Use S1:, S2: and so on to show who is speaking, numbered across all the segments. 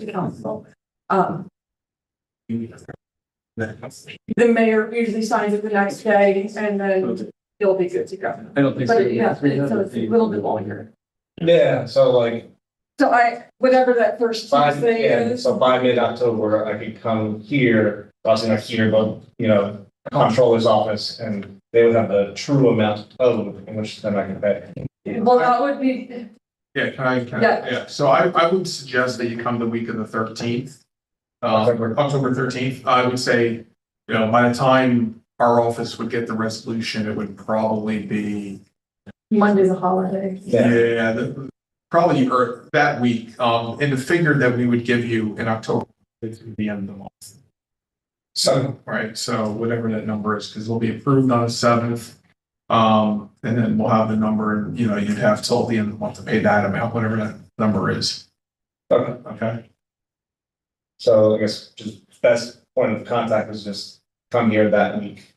S1: to council. Um, the mayor usually signs it the next day and then it'll be good to go.
S2: I don't think so.
S1: But yeah, so it's a little bit longer.
S3: Yeah, so like
S1: So I, whatever that first
S3: by,
S1: Tuesday
S3: yeah,
S1: is,
S3: so by mid-October, I could come here, also not here, but, you know, comptroller's office, and they would have the true amount owed, in which then I can pay.
S1: well, that would be,
S4: Yeah, can I, can I,
S1: Yeah.
S4: yeah, so I, I would suggest that you come the week of the thirteenth. Uh,
S3: October.
S4: October thirteenth, I would say, you know, by the time our office would get the resolution, it would probably be,
S1: Monday's a holiday.
S3: Yeah.
S4: yeah, the- probably or that week, um, and the figure that we would give you in October is the end of the month.
S3: So,
S4: Right, so whatever that number is, because it'll be approved on the seventh. Um, and then we'll have the number, and you know, you'd have till the end of the month to pay that amount, whatever that number is,
S3: okay,
S4: okay?
S3: so I guess just best point of contact is just come here that week.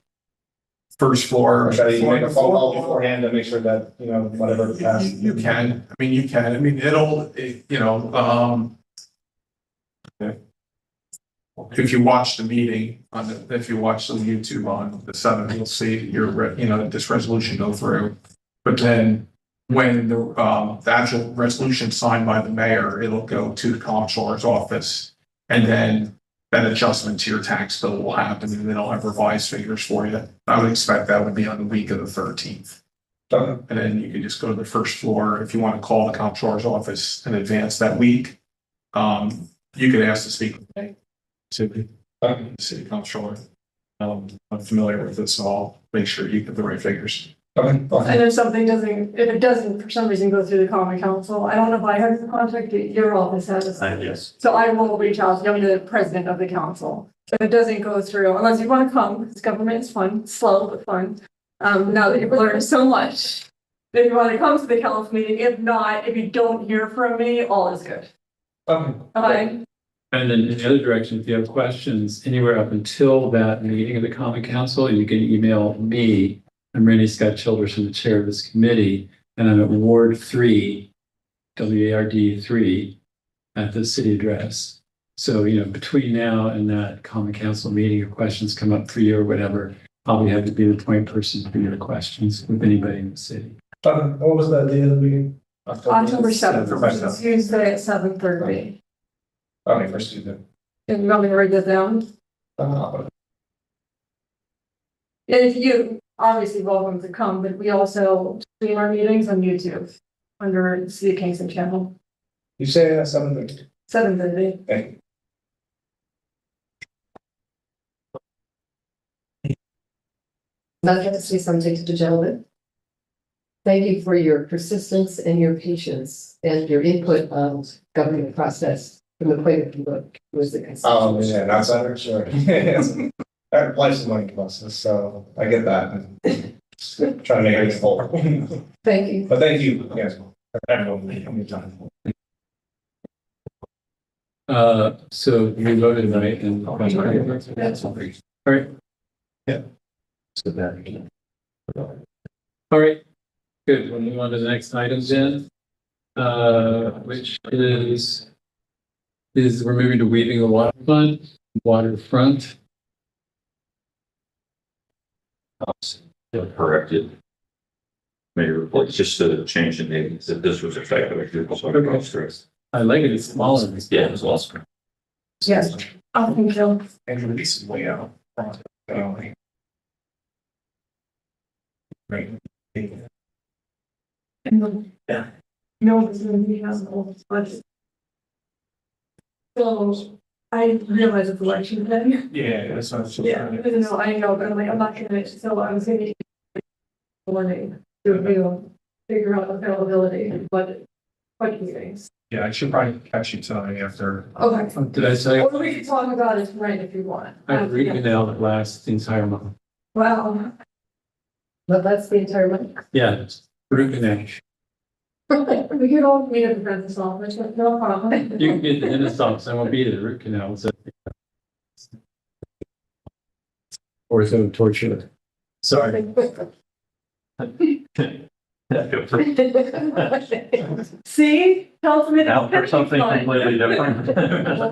S4: First floor.
S3: Or should I make a phone call beforehand to make sure that, you know, whatever
S4: You-
S3: passed?
S4: You you can, I mean, you can, I mean, it'll, it- you know, um. If you watch the meeting on the, if you watch the YouTube on the seventh, you'll see your, re- you know, this resolution go through. But then when the, um, the actual resolution signed by the mayor, it'll go to the comptroller's office. And then that adjustment to your tax bill will happen and then I'll have revised figures for you. I would expect that would be on the week of the thirteenth.
S3: Okay,
S4: And then you can just go to the first floor if you want to call the comptroller's office in advance that week. Um, you could ask to speak with me, to the
S3: okay,
S4: city comptroller. Um, I'm familiar with this, so I'll make sure you get the right figures.
S3: okay, okay.
S1: And if something doesn't, if it doesn't for some reason go through the common council, I don't know if I have the contact, but your office has.
S5: yes.
S1: So I will reach out, I'm the president of the council. If it doesn't go through, unless you want to come, because government is fun, slow but fun. Um, now that you've learned so much, then you want to come to the council meeting. If not, if you don't hear from me, all is good. Okay,
S5: And then in the other direction, if you have questions anywhere up until that meeting of the common council, you can email me. I'm Randy Scott Childerson, the chair of this committee, and I'm at Ward Three, W A R D three, at the city address. So, you know, between now and that common council meeting, if questions come up for you or whatever, I'll be happy to be the point person for your questions with anybody in the city.
S3: Okay, What was the date of the meeting?
S1: October
S3: October
S1: seventh, Tuesday at seven thirty.
S3: Okay, first Tuesday.
S1: And you want me to write that down?
S3: Uh,
S1: And if you, obviously welcome to come, but we also stream our meetings on YouTube under City of Kingston channel,
S3: You say uh, seven thirty,
S1: seven thirty.
S3: thank you.
S6: That has to be something to the gentleman. Thank you for your persistence and your patience and your input on government process from the point of view of was the constituent.
S3: Oh, yeah, an outsider, sure. That applies to money buses, so I get that. Trying to make it full. But
S6: Thank you.
S3: thank you, yes. Everyone,
S5: Uh, so we voted right and. Alright. Yeah. So that. Alright, good, we'll move on to the next item then. Uh, which is. Is we're moving to weaving the water fund, waterfront.
S7: corrected. Maybe replace just a change in name, that this was effective. so it goes through.
S5: I like it, it's smaller.
S7: Yeah, it was lost.
S1: Yes. I think so.
S4: And release is way out. front, um, Right.
S1: Yeah. No, this is gonna be possible, but. So, I realize it's election day.
S4: Yeah, that's what I was just
S1: Yeah,
S4: trying to-
S1: no, I know, but I'm like, I'm not gonna, so I was gonna. be Morning, to review, figure out availability, but, but meetings.
S4: Yeah, I should probably catch you tonight after.
S1: Okay.
S5: Did I say,
S1: Or we could talk about it tonight if you want.
S5: I re-emailed it last entire month?
S1: Wow.
S6: But that's the entire month.
S5: Yeah, re-emailed.
S1: We could all meet at the business office, but no problem.
S5: You can get the Renaissance, I won't be there, root canal, so. Or so torture. Sorry.
S8: Thank you.
S9: See, tell me.
S1: Now for something completely different.